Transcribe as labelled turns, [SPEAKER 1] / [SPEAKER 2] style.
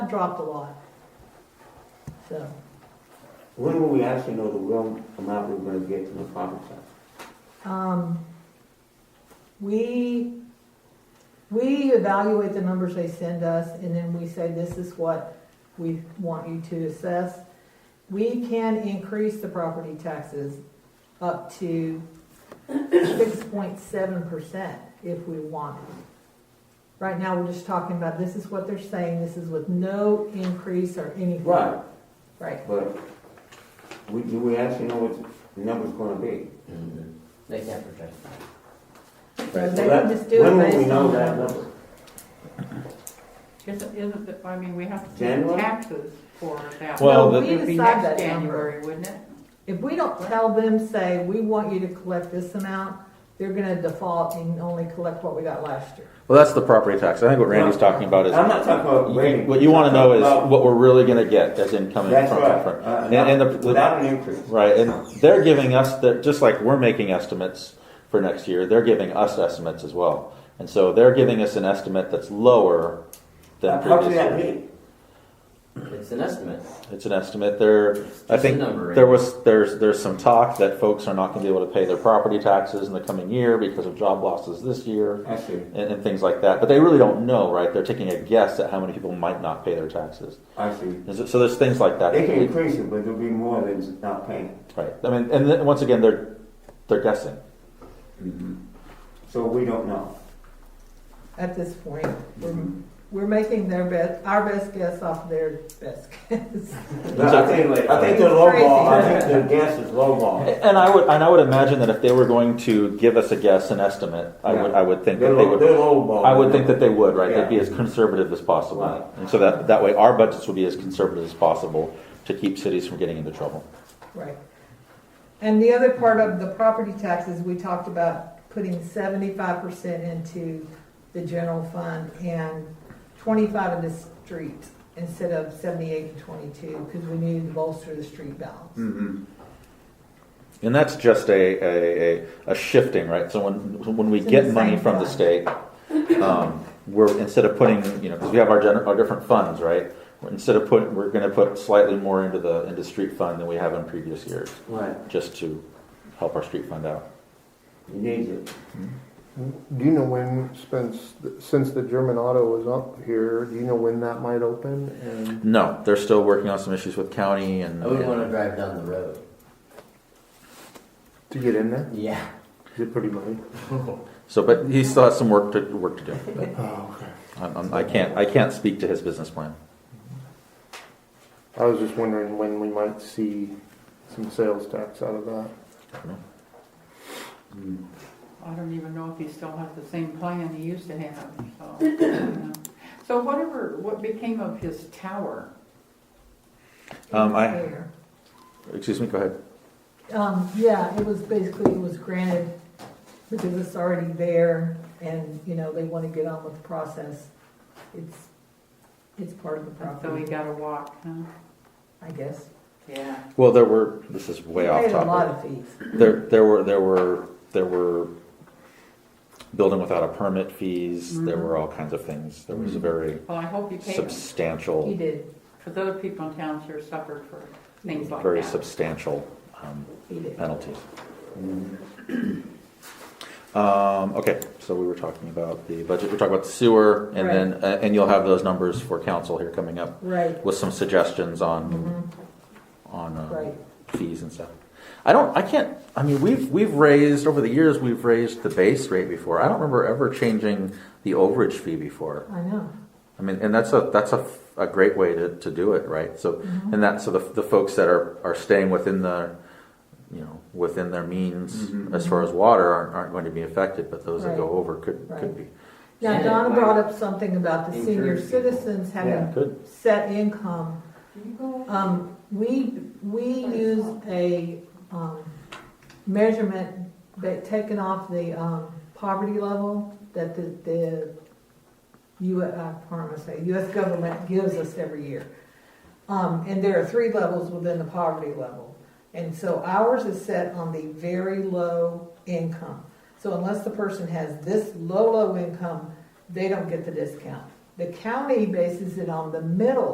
[SPEAKER 1] dropped a lot. So,
[SPEAKER 2] When will we actually know the real amount we're gonna get from the property tax?
[SPEAKER 1] um, we, we evaluate the numbers they send us and then we say, this is what we want you to assess. We can increase the property taxes up to six point seven percent if we want. Right now, we're just talking about, this is what they're saying, this is with no increase or anything.
[SPEAKER 2] Right,
[SPEAKER 1] Right.
[SPEAKER 2] but we, do we actually know what the number's gonna be?
[SPEAKER 3] They can't project.
[SPEAKER 1] So
[SPEAKER 2] So
[SPEAKER 1] they
[SPEAKER 2] that-
[SPEAKER 1] can just do it
[SPEAKER 2] When will we
[SPEAKER 1] based
[SPEAKER 2] know
[SPEAKER 1] on that.
[SPEAKER 2] that number?
[SPEAKER 4] Isn't, isn't, the- I mean, we have to pay
[SPEAKER 2] January?
[SPEAKER 4] taxes for that.
[SPEAKER 5] Well,
[SPEAKER 1] Well,
[SPEAKER 5] the-
[SPEAKER 4] It
[SPEAKER 1] we
[SPEAKER 4] would be
[SPEAKER 1] decide that
[SPEAKER 4] next
[SPEAKER 1] number.
[SPEAKER 4] January, wouldn't it?
[SPEAKER 1] If we don't tell them, say, we want you to collect this amount, they're gonna default and only collect what we got last year.
[SPEAKER 5] Well, that's the property tax. I think what Randy's talking about is,
[SPEAKER 2] I'm not talking about rating.
[SPEAKER 5] what you wanna know
[SPEAKER 2] About-
[SPEAKER 5] is what we're really gonna get as income and
[SPEAKER 2] That's
[SPEAKER 5] from,
[SPEAKER 2] right.
[SPEAKER 5] from-
[SPEAKER 2] Uh,
[SPEAKER 5] and, and
[SPEAKER 2] not-
[SPEAKER 5] the-
[SPEAKER 2] Without an increase.
[SPEAKER 5] Right, and they're giving us, the just like we're making estimates for next year, they're giving us estimates as well. And so they're giving us an estimate that's lower than
[SPEAKER 2] Uh, How can
[SPEAKER 5] previous
[SPEAKER 2] that
[SPEAKER 5] year.
[SPEAKER 2] be?
[SPEAKER 3] It's an estimate.
[SPEAKER 5] It's an estimate, there, I
[SPEAKER 3] Just a
[SPEAKER 5] think,
[SPEAKER 3] number,
[SPEAKER 5] there
[SPEAKER 3] right?
[SPEAKER 5] was, there's, there's some talk that folks are not gonna be able to pay their property taxes in the coming year because of job losses this year
[SPEAKER 2] I see,
[SPEAKER 5] and, and things like that, but they really don't know, right? They're taking a guess at how many people might not pay their taxes.
[SPEAKER 2] I see.
[SPEAKER 5] Is it- So there's things like that.
[SPEAKER 2] They can increase it, but there'll be more than not paying.
[SPEAKER 5] Right, I mean, and then, once again, they're, they're guessing. Mm-hmm.
[SPEAKER 2] So we don't know.
[SPEAKER 1] At this point, we're, we're making their best, our best guess off their best guess.
[SPEAKER 2] But I think, I think they're lowball, I think their guess is lowball.
[SPEAKER 5] And I would, and I would imagine that if they were going to give us a guess, an estimate, I would, I would
[SPEAKER 2] They're
[SPEAKER 5] think that they
[SPEAKER 2] low-
[SPEAKER 5] would.
[SPEAKER 2] they're lowball.
[SPEAKER 5] I would think that they would, right? They'd be
[SPEAKER 2] Yeah.
[SPEAKER 5] as conservative as possible,
[SPEAKER 2] Right.
[SPEAKER 5] and so that that way our budgets would be as conservative as possible to keep cities from getting into trouble.
[SPEAKER 1] Right. And the other part of the property taxes, we talked about putting seventy-five percent into the general fund and twenty-five into street instead of seventy-eight and twenty-two, because we needed to bolster the street balance.
[SPEAKER 2] Mhm.
[SPEAKER 5] And that's just a a, a, a shifting, right? So when when we
[SPEAKER 1] It's in
[SPEAKER 5] get
[SPEAKER 1] the
[SPEAKER 5] money
[SPEAKER 1] same
[SPEAKER 5] from the
[SPEAKER 1] fund.
[SPEAKER 5] state, um, we're instead of putting, you know, because we have our gener- our different funds, right? Instead of putting, we're going to put slightly more into the into street fund than we have in previous years,
[SPEAKER 2] Right,
[SPEAKER 5] just to help our street fund out.
[SPEAKER 2] you need it.
[SPEAKER 6] Do you know when, since, since the German auto was up here, do you know when that might open? And
[SPEAKER 5] No, they're still working on some issues with county and.
[SPEAKER 3] I would want to drive down the road.
[SPEAKER 6] to get in there,
[SPEAKER 3] Yeah.
[SPEAKER 6] is it pretty money?
[SPEAKER 5] So, but he still has some work to work to do. But
[SPEAKER 6] Oh, okay.
[SPEAKER 5] I'm, I'm, I can't I can't speak to his business plan.
[SPEAKER 6] I was just wondering when we might see some sales tax out of that.
[SPEAKER 4] I don't even know if he still has the same plan he used to have, so. you know. So whatever, what became of his tower?
[SPEAKER 5] Um, I-
[SPEAKER 1] Fair.
[SPEAKER 5] Excuse me. Go ahead.
[SPEAKER 1] Um, yeah, it was basically, it was granted because it's already there and, you know, they want to get on with the process. It's, it's part of the
[SPEAKER 4] So he
[SPEAKER 1] property,
[SPEAKER 4] got a walk, huh?
[SPEAKER 1] I guess.
[SPEAKER 4] Yeah.
[SPEAKER 5] Well, there were. This is way
[SPEAKER 1] They
[SPEAKER 5] off
[SPEAKER 1] paid a lot
[SPEAKER 5] topic.
[SPEAKER 1] of fees.
[SPEAKER 5] There there were there were there were building without a permit fees.
[SPEAKER 4] Mm-hmm.
[SPEAKER 5] There were all kinds of things. There was a very
[SPEAKER 4] Well, I hope he paid him,
[SPEAKER 1] He
[SPEAKER 5] substantial,
[SPEAKER 1] did,
[SPEAKER 4] because other people in town sure suffered for things like that.
[SPEAKER 5] very substantial um,
[SPEAKER 1] he did.
[SPEAKER 5] penalties.
[SPEAKER 4] Mm-hmm.
[SPEAKER 5] Um, okay, so we were talking about the budget. We're talking about the sewer, and then uh, and you'll have those numbers for council here coming up.
[SPEAKER 1] Right,
[SPEAKER 5] with some suggestions on,
[SPEAKER 1] mhm,
[SPEAKER 4] Mm-hmm.
[SPEAKER 5] on uh,
[SPEAKER 1] right.
[SPEAKER 5] fees and stuff. I don't, I can't, I mean, we've, we've raised, over the years, we've raised the base rate before. I don't remember ever changing the overage fee before.
[SPEAKER 1] I know.
[SPEAKER 5] I mean, and that's a, that's a, a great way to, to do it, right? So,
[SPEAKER 1] Mhm.
[SPEAKER 5] and that, so the, the folks that are, are staying within the, you know, within their means
[SPEAKER 2] Mhm.
[SPEAKER 5] as far as water aren't, aren't going to be affected, but those that go
[SPEAKER 1] Mm-hmm. Right.
[SPEAKER 5] over could, could
[SPEAKER 1] Right.
[SPEAKER 5] be.
[SPEAKER 1] Now
[SPEAKER 3] Yeah,
[SPEAKER 1] Donna
[SPEAKER 3] like-
[SPEAKER 1] brought up something about the senior
[SPEAKER 3] Encourage people.
[SPEAKER 1] citizens having
[SPEAKER 5] Could.
[SPEAKER 1] set income Um, we, we use a, um, measurement that taken off the, um, poverty level that the, the U, uh, pardon me, say, US government gives us every year. Um, and there are three levels within the poverty level. And so ours is set on the very low income. So unless the person has this low, low income, they don't get the discount. The county bases it on the middle